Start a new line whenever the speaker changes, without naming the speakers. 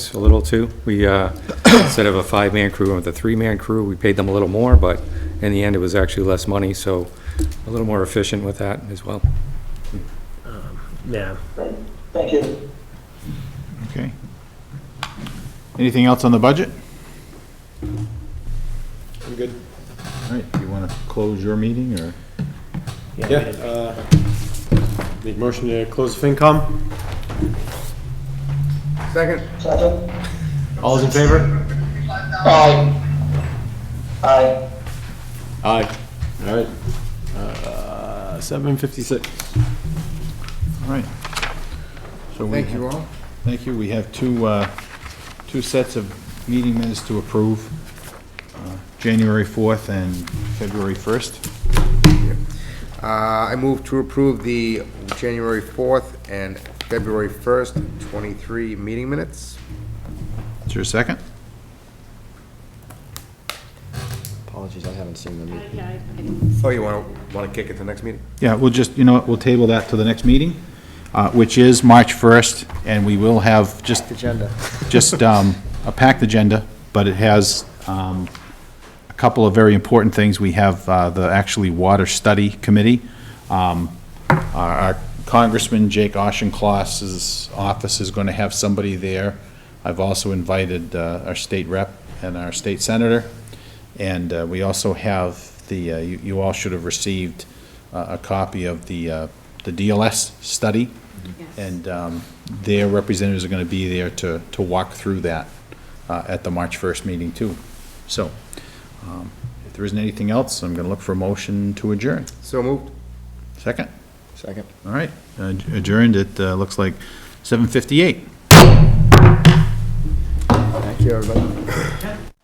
a little too. We, uh, instead of a five-man crew, went with a three-man crew, we paid them a little more, but in the end, it was actually less money, so a little more efficient with that as well.
Yeah.
Great. Thank you.
Okay. Anything else on the budget?
I'm good.
All right, you want to close your meeting, or?
Yeah. uh, Make motion to close FinCom.
Second?
All those in favor?
Aye. Aye.
Aye. All right. Uh, 7:56.
All right. Thank you all. Thank you. We have two, uh, two sets of meeting minutes to approve, uh, January 4th and February 1st.
Uh, I move to approve the January 4th and February 1st, 23 meeting minutes.
Is there a second?
Apologies, I haven't seen them.
I, I
Oh, you want to, want to kick it to the next meeting?
Yeah, we'll just, you know, what, we'll table that to the next meeting, uh, which is March 1st, and we will have just,
Agenda.
just um, a packed agenda, but it has um, a couple of very important things. We have uh, the actually Water Study Committee. Um, Our our Congressman Jake Auchincloss's office is going to have somebody there. I've also invited uh, our state rep and our state senator. And uh, we also have the, uh, you you all should have received uh, a copy of the, uh, the DLS study. And um, their representatives are going to be there to, to walk through that uh, at the March 1st meeting, too. So um, if there isn't anything else, I'm going to look for a motion to adjourn.
So moved.
Second?
Second.
All right, Uh, adjourned at, uh, looks like 7:58.
Thank you, everybody.